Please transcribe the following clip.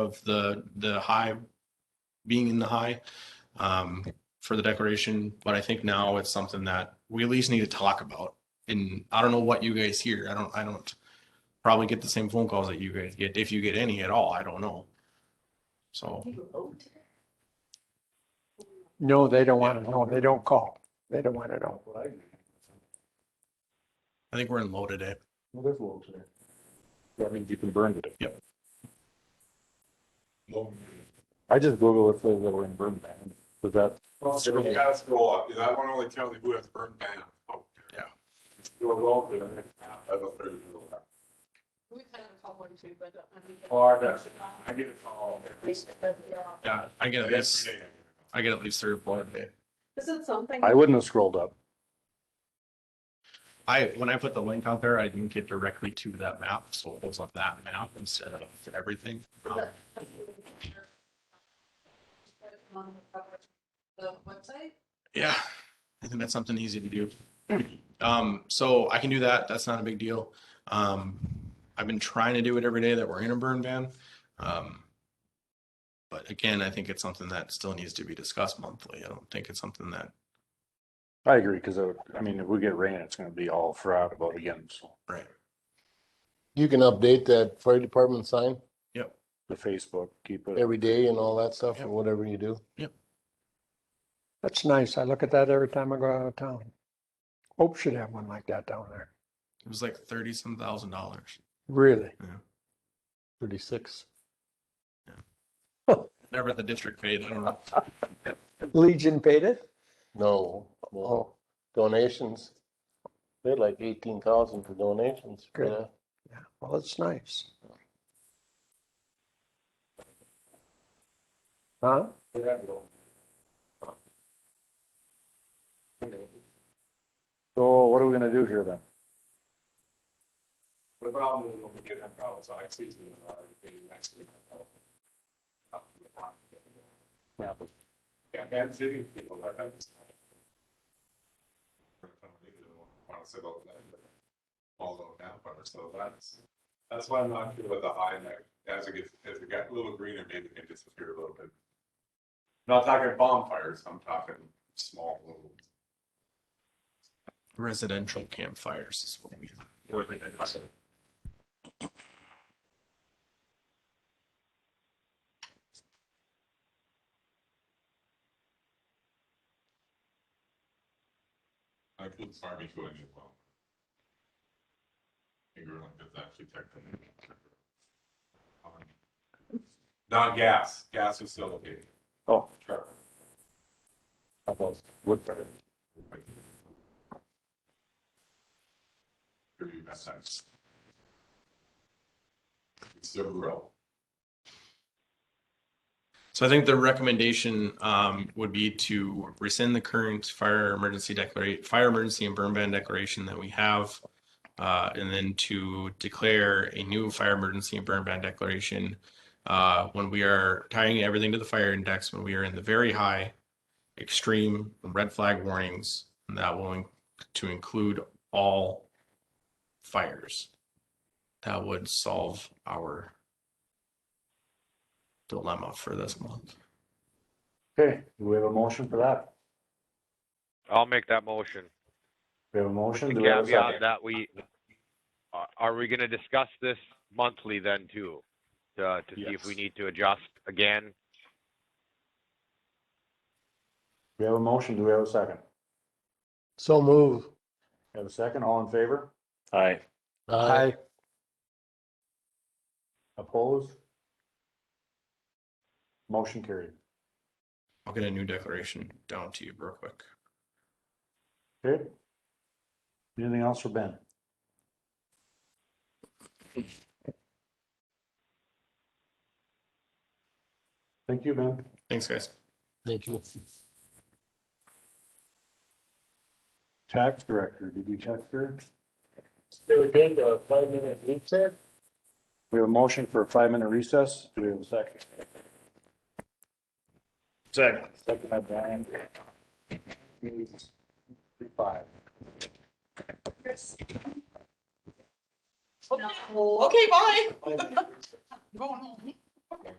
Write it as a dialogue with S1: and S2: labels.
S1: of the, the high, being in the high um, for the declaration, but I think now it's something that we at least need to talk about. And I don't know what you guys hear. I don't, I don't probably get the same phone calls that you guys get, if you get any at all. I don't know. So,
S2: No, they don't want to know. They don't call. They don't want to know.
S1: I think we're in low today.
S3: Well, there's low today. That means you can burn it.
S1: Yep.
S3: I just Google it, says that we're in burn ban, but that,
S4: Well, so you gotta scroll up, because I want to only tell you who has burned down. Oh,
S1: Yeah.
S4: You're welcome. That's a pretty cool one.
S5: We've had a couple or two, but uh, I think.
S4: Hard, that's- I get a call. every-
S1: Yeah, I get at
S4: every
S1: least,
S4: day.
S1: I get at least three or four a day.
S5: Is it something?
S3: I wouldn't have scrolled up.
S1: I, when I put the link out there, I didn't get directly to that map, so it was on that map instead of everything. Um,
S5: On The website?
S1: Yeah, I think that's something easy to do. Um, so I can do that. That's not a big deal. Um, I've been trying to do it every day that we're in a burn ban. Um, but again, I think it's something that still needs to be discussed monthly. I don't think it's something that,
S3: I agree, because I mean, if we get rain, it's gonna be all throughout about again, so
S1: right,
S6: You can update that fire department sign
S3: the Facebook, keep it.
S6: every day and all that stuff
S1: Yep.
S6: or whatever you do.
S2: That's nice. I look at that every time I go out of town. Hope should have one like that down there.
S1: it was like thirty some thousand dollars.
S2: Really?
S6: Thirty-six.
S1: Never the district paid. I don't know.
S2: Legion paid it?
S6: No, well,
S2: Oh,
S6: donations. They had like eighteen thousand for donations. for
S2: Good.
S6: that.
S2: yeah. Well, it's nice. Huh?
S3: So what are we gonna do here then?
S4: The problem is when we get that problem, so I see you, uh, maybe next week. Yeah, Kansas City people like that. Want to sit all that, but Although now, but so that's, that's why I'm not sure about the high neck, as it gets, as it got a little greener, maybe it can disappear a little bit. Not talking bonfires, I'm talking small little.
S1: Residential campfires is what we.
S4: I put barbecue in as well. Finger like that's actually technically. Not gas, gas is still okay.
S3: Oh.
S4: Sure.
S3: How about wood fire?
S4: Give you that time. It's still grow.
S1: So I think the recommendation um would be to rescind the current fire emergency declaration, fire emergency and burn ban declaration that we have. Uh, and then to declare a new fire emergency and burn ban declaration. Uh, when we are tying everything to the fire index, when we are in the very high, extreme red flag warnings, and that will in- to include all fires. That would solve our dilemma for this month.
S3: Okay, do we have a motion for that?
S7: I'll make that motion.
S3: We have a motion?
S7: The
S3: Do we have a
S7: caveat
S3: second?
S7: that we, are, are we gonna discuss this monthly then too? uh, To, to see if we
S3: Yes.
S7: need to adjust again?
S3: We have a motion, do we have a second?
S6: So move.
S3: Have a second, all in favor? Aye.
S2: Aye.
S3: Opposed? Motion carried.
S1: I'll get a new declaration down to you real quick.
S3: Okay. Anything else for Ben? Thank you, Ben.
S1: Thanks, guys.
S6: Thank you.
S3: Tax director, did you check here?
S6: Still again, a five-minute recess?
S3: We have a motion for a five-minute recess. Do we have a second? Second. Second by Brian. Five.
S5: Okay, bye. Going home.